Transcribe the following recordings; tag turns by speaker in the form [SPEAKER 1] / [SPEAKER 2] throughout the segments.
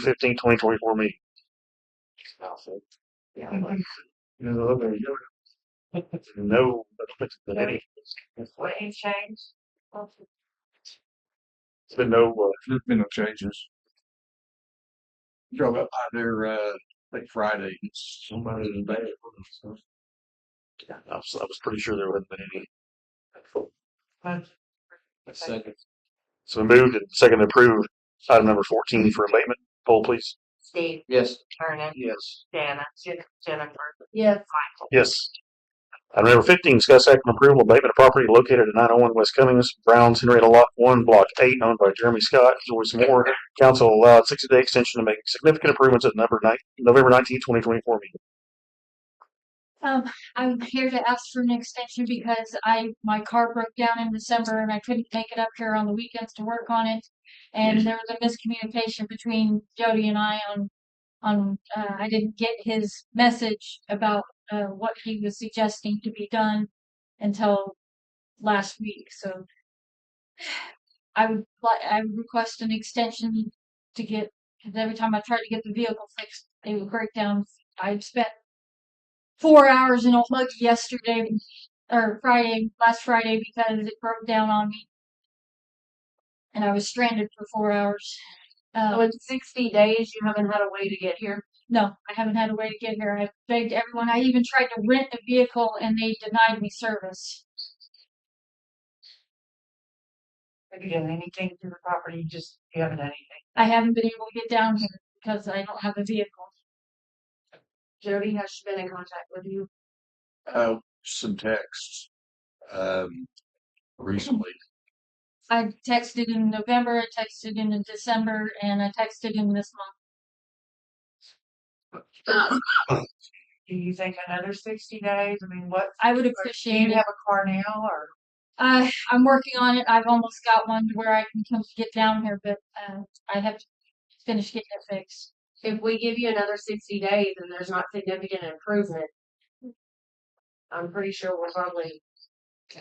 [SPEAKER 1] 15, 2024 meeting.
[SPEAKER 2] Yeah.
[SPEAKER 1] You know, there you go. No, but, but any,
[SPEAKER 2] What you change?
[SPEAKER 1] it's been no, uh,
[SPEAKER 3] There's been no changes. Drove up by there, uh, like Friday. It's somebody in bed. So.
[SPEAKER 1] I was, I was pretty sure there wasn't any.
[SPEAKER 3] A second.
[SPEAKER 1] So moved and second to approve item number 14 for abatement. Poll, please.
[SPEAKER 2] Steve,
[SPEAKER 3] Yes.
[SPEAKER 2] Vernon,
[SPEAKER 3] Yes.
[SPEAKER 2] Jana, Jennifer. Yes. Michael.
[SPEAKER 1] Yes. Item number 15, discuss act on approval of abatement of property located at 901 West Cummings, Brown's Henrietta Lot 1, Block 8, owned by Jeremy Scott, Joyce Moore. Council allowed 60-day extension to make significant improvements at number nine, November 19, 2024 meeting.
[SPEAKER 4] Um, I'm here to ask for an extension because I, my car broke down in December and I couldn't make it up here on the weekends to work on it. And there was a miscommunication between Jody and I on, on, uh, I didn't get his message about, uh, what he was suggesting to be done until last week, so. I would like, I would request an extension to get, cause every time I tried to get the vehicle fixed, they would break down. I'd spent four hours in Old Mug yesterday or Friday, last Friday, because it broke down on me, and I was stranded for four hours.
[SPEAKER 2] So
[SPEAKER 4] Uh,
[SPEAKER 2] in sixty days, you haven't had a way to get here.
[SPEAKER 4] no, I haven't had a way to get here. I begged everyone. I even tried to rent a vehicle, and they denied me service.
[SPEAKER 2] Have you done anything to the property? Just, you haven't done anything.
[SPEAKER 4] I haven't been able to get down here because I don't have a vehicle.
[SPEAKER 2] Jody, has she been in contact with you?
[SPEAKER 3] Uh, some texts, um, recently.
[SPEAKER 4] I texted in November, I texted in December, and I texted in this month.
[SPEAKER 2] Do you think another sixty days? I mean, what,
[SPEAKER 4] I would
[SPEAKER 2] do you
[SPEAKER 4] appreciate it.
[SPEAKER 2] have a car now or?
[SPEAKER 4] Uh, I'm working on it. I've almost got one to where I can come get down here, but uh, I have to finish getting it fixed.
[SPEAKER 5] if we give you another sixty days and there's not significant improvement, I'm pretty sure we'll probably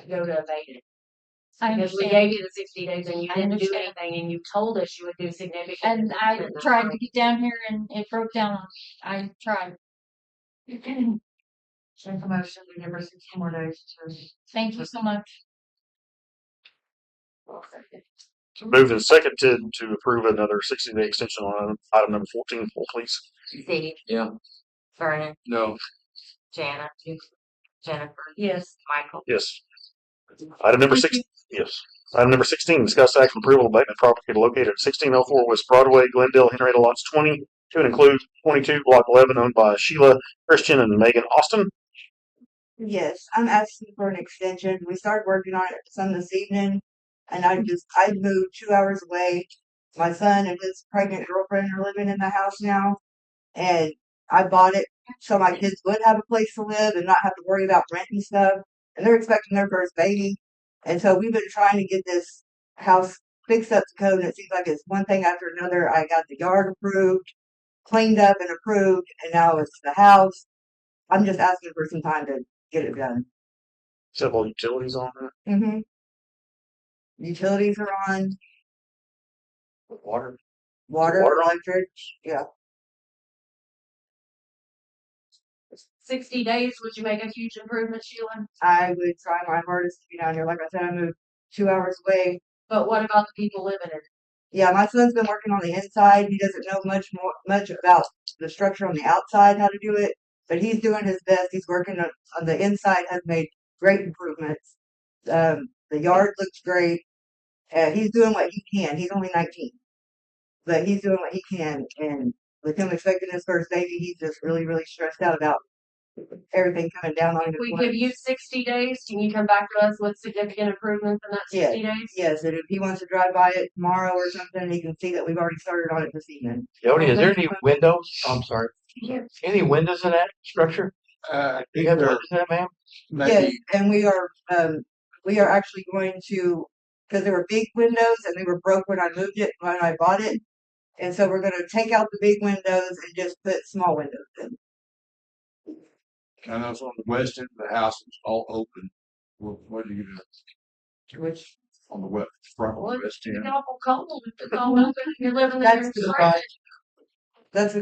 [SPEAKER 5] go to abate it.
[SPEAKER 4] I
[SPEAKER 5] Because we
[SPEAKER 4] understand,
[SPEAKER 5] gave you the sixty days and you
[SPEAKER 4] I
[SPEAKER 5] didn't do
[SPEAKER 4] understand.
[SPEAKER 5] anything and you told us you would do significant.
[SPEAKER 4] and I
[SPEAKER 5] improvement.
[SPEAKER 4] tried to get down here and it broke down on me. I tried.
[SPEAKER 2] Make a motion, we give her sixty more days to.
[SPEAKER 4] Thank you so much.
[SPEAKER 1] So moved and second to, to approve another 60-day extension on item- item number 14. Poll, please.
[SPEAKER 5] Steve,
[SPEAKER 3] Yeah.
[SPEAKER 5] Vernon,
[SPEAKER 3] No.
[SPEAKER 5] Jana, Jennifer,
[SPEAKER 2] Yes.
[SPEAKER 5] Michael.
[SPEAKER 1] Yes. Item number six, yes. Item number sixteen, discuss action approval of abatement property located at sixteen oh four West Broadway, Glendale, Henrietta lots twenty, to and include twenty-two, block eleven, owned by Sheila Christian and Megan Austin.
[SPEAKER 6] Yes, I'm asking for an extension. We started working on it some this evening, and I just, I moved two hours away. My son and his pregnant girlfriend are living in the house now, and I bought it so my kids would have a place to live and not have to worry about rent and stuff. And they're expecting their first baby, and so we've been trying to get this house fixed up to code, and it seems like it's one thing after another. I got the yard approved, cleaned up and approved, and now it's the house. I'm just asking for some time to get it done.
[SPEAKER 1] Several utilities on that,
[SPEAKER 6] Mm-hmm. Utilities are on,
[SPEAKER 1] water.
[SPEAKER 6] water,
[SPEAKER 1] Water on?
[SPEAKER 6] electric,
[SPEAKER 5] Sixty days, would you make a huge improvement, Sheila?
[SPEAKER 6] I would try my hardest to be down here. Like I said, I moved two hours away.
[SPEAKER 5] But what about the people living in it?
[SPEAKER 6] Yeah, my son's been working on the inside. He doesn't know much more, much about the structure on the outside, how to do it, but he's doing his best. He's working on, on the inside, has made great improvements. Um, the yard looks great. Uh, he's doing what he can. He's only 19, but he's doing what he can. And with him expecting his first baby, he's just really, really stressed out about everything coming down on him. at
[SPEAKER 5] If we
[SPEAKER 6] once.
[SPEAKER 5] give you sixty days, can you come back to us with significant improvements in that
[SPEAKER 6] Yeah.
[SPEAKER 5] sixty days?
[SPEAKER 6] Yes, and if he wants to drive by it tomorrow or something, he can see that we've already started on it this evening.
[SPEAKER 7] Jody, is there any windows? I'm sorry.
[SPEAKER 5] Yeah.
[SPEAKER 7] Any windows in that structure?
[SPEAKER 3] Uh, I
[SPEAKER 7] Do
[SPEAKER 3] think
[SPEAKER 7] you have
[SPEAKER 3] they're
[SPEAKER 7] windows in that, ma'am?
[SPEAKER 6] Yes,
[SPEAKER 3] maybe,
[SPEAKER 6] and we are, um, we are actually going to, because there were big windows and they were broke when I moved it, when I bought it. And so we're gonna take out the big windows and just put small windows in.
[SPEAKER 3] I know it's on the west end of the house. It's all open. Well, what are you gonna? Which? On the west, front,
[SPEAKER 5] Well,
[SPEAKER 3] west
[SPEAKER 5] It's
[SPEAKER 3] end.
[SPEAKER 5] awful cold. It's all open. You're living in
[SPEAKER 6] That's
[SPEAKER 5] your
[SPEAKER 6] the
[SPEAKER 5] garage.
[SPEAKER 6] That's